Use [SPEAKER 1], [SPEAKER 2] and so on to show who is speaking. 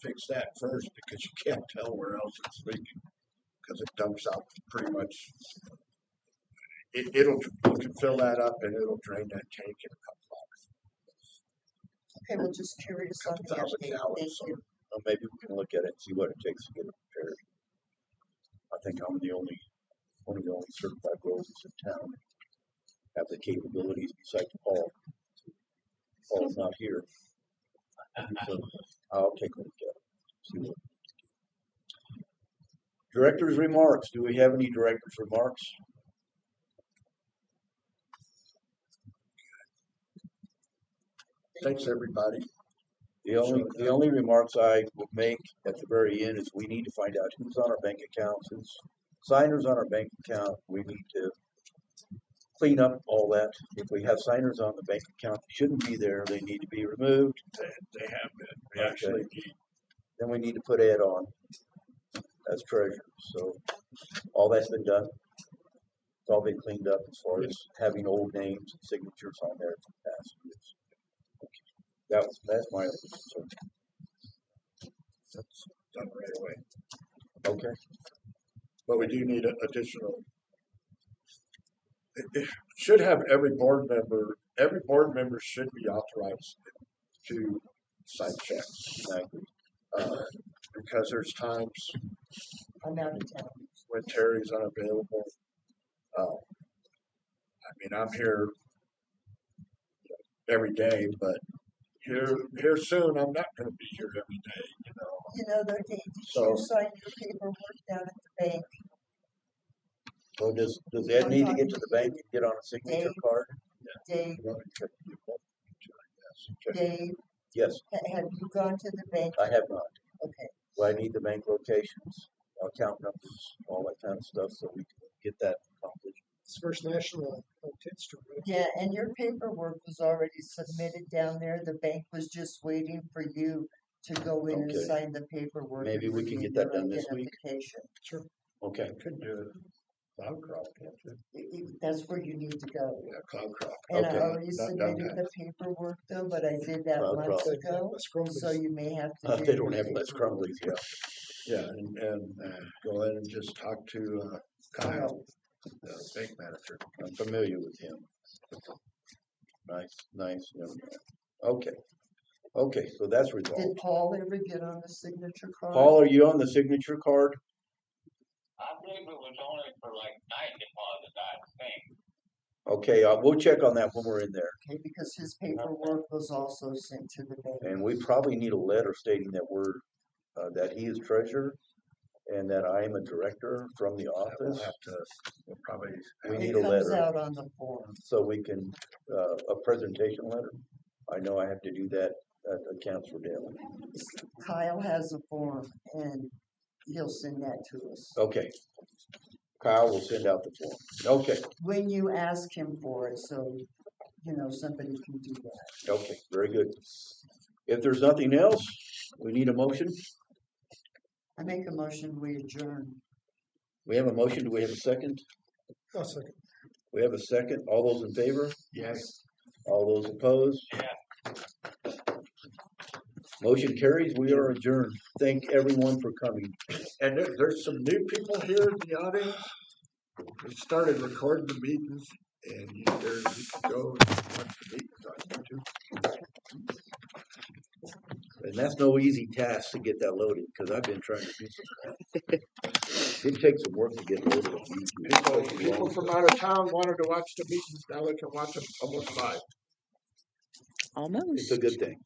[SPEAKER 1] fix that first because you can't tell where else it's leaking. Cause it dumps out pretty much. It, it'll, you can fill that up and it'll drain that tank in a couple hours.
[SPEAKER 2] Okay, well, just curious on
[SPEAKER 1] Couple
[SPEAKER 2] the
[SPEAKER 1] thousand
[SPEAKER 2] update.
[SPEAKER 1] gallons.
[SPEAKER 2] Thank you.
[SPEAKER 3] Well, maybe we can look at it and see what it takes to get it repaired. I think I'm the only, one of the only certified roads in town that have the capabilities besides Paul. Paul's not here. So I'll take a look at it. see what- Director's remarks. Do we have any director's remarks?
[SPEAKER 1] Thanks, everybody.
[SPEAKER 3] The only, the only remarks I would make at the very end is we need to find out who's on our bank accounts, who's signers on our bank account. We need to clean up all that. If we have signers on the bank account, that shouldn't be there, they need to be removed.
[SPEAKER 1] They, they have been, they actually,
[SPEAKER 3] Then we need to put Ed on as treasurer. So all that's been done. It's all been cleaned up as far as having old names and signatures on there from past years. That was, that's my, only concern.
[SPEAKER 1] that's done right away.
[SPEAKER 3] okay.
[SPEAKER 1] But we do need a- additional. It, it should have every board member, every board member should be authorized to sign checks.
[SPEAKER 3] I
[SPEAKER 1] Uh, because there's times
[SPEAKER 2] I'm out of town.
[SPEAKER 1] when Terry's unavailable. Uh, I mean, I'm here every day, but here, here soon, I'm not gonna be here every day, you know?
[SPEAKER 2] You know, though, Dave, did
[SPEAKER 1] So-
[SPEAKER 2] you sign your paperwork down at the bank?
[SPEAKER 3] Well, does, does Ed need to get to the bank and get on a signature
[SPEAKER 2] Dave?
[SPEAKER 3] card?
[SPEAKER 2] Dave,
[SPEAKER 1] you know, it could be both, I guess.
[SPEAKER 2] Dave,
[SPEAKER 3] Yes,
[SPEAKER 2] ha- have you gone to the bank?
[SPEAKER 3] I have not.
[SPEAKER 2] Okay,
[SPEAKER 3] Well, I need the bank locations, account numbers, all that kind of stuff, so we can get that accomplished.
[SPEAKER 4] It's First National uh, on Tenth Street. right?
[SPEAKER 2] yeah, and your paperwork was already submitted down there. The bank was just waiting for you to go in and
[SPEAKER 3] Okay.
[SPEAKER 2] sign the paperwork.
[SPEAKER 3] Maybe
[SPEAKER 2] and
[SPEAKER 3] we can
[SPEAKER 2] submit
[SPEAKER 3] get that
[SPEAKER 2] your
[SPEAKER 3] done this week.
[SPEAKER 2] identification.
[SPEAKER 3] Okay,
[SPEAKER 1] I Could do it, cloud crop, can't you?
[SPEAKER 2] You- you- That's where you need to go.
[SPEAKER 1] yeah, cloud crop.
[SPEAKER 2] And uh, I
[SPEAKER 3] Okay,
[SPEAKER 2] already
[SPEAKER 1] not done
[SPEAKER 2] submitted
[SPEAKER 1] yet.
[SPEAKER 2] the paperwork though, but I did that
[SPEAKER 3] Well,
[SPEAKER 2] months
[SPEAKER 3] probably.
[SPEAKER 2] ago,
[SPEAKER 4] That's Crumbly's.
[SPEAKER 2] so you may have to.
[SPEAKER 3] Uh,
[SPEAKER 2] do
[SPEAKER 3] they don't
[SPEAKER 2] your
[SPEAKER 3] have Les
[SPEAKER 2] paperwork.
[SPEAKER 3] Crumblies here.
[SPEAKER 1] Yeah, and, and uh, go ahead and just talk to uh, Kyle, the bank manager.
[SPEAKER 3] I'm familiar with him. Nice, nice, young man. Okay, okay, so that's
[SPEAKER 2] Did
[SPEAKER 3] resolved.
[SPEAKER 2] Paul ever get on the signature card?
[SPEAKER 3] Paul, are you on the signature card?
[SPEAKER 5] I believe it was only for like night deposit, I think.
[SPEAKER 3] Okay, uh, we'll check on that when we're in there.
[SPEAKER 2] Okay, because his paperwork was also sent to the bank.
[SPEAKER 3] And we probably need a letter stating that we're, uh, that he is treasurer and that I am a director from the
[SPEAKER 1] Uh, We'll
[SPEAKER 3] office.
[SPEAKER 1] have to, we'll probably.
[SPEAKER 3] We
[SPEAKER 1] have-
[SPEAKER 3] need
[SPEAKER 2] It
[SPEAKER 3] a
[SPEAKER 2] comes
[SPEAKER 3] letter.
[SPEAKER 2] out on the form.
[SPEAKER 3] So we can, uh, a presentation letter. I know I have to do that at the council daily.
[SPEAKER 2] Kyle has a form and he'll send that to us.
[SPEAKER 3] Okay. Kyle will send out the form. Okay,
[SPEAKER 2] When you ask him for it, so, you know, somebody can do that.
[SPEAKER 3] okay, very good. If there's nothing else, we need a motion.
[SPEAKER 2] I make a motion, we adjourn.
[SPEAKER 3] We have a motion. Do we have a second?
[SPEAKER 4] I'll Oh, second.
[SPEAKER 3] We have a second. All those in favor?
[SPEAKER 1] Yes.
[SPEAKER 3] All those opposed? Motion carries. We are adjourned. Thank everyone for coming.
[SPEAKER 1] And there, there's some new people here in the audience. We started recording the meetings and you- there, you can go and watch the meetings on YouTube.
[SPEAKER 3] And that's no easy task to get that loaded, because I've been trying to do some. It takes some work to get loaded. on YouTube,
[SPEAKER 4] People,
[SPEAKER 3] especially
[SPEAKER 4] people
[SPEAKER 3] long-
[SPEAKER 4] from out of town wanted to watch the meetings, now they can watch them almost live.
[SPEAKER 3] It's a good thing.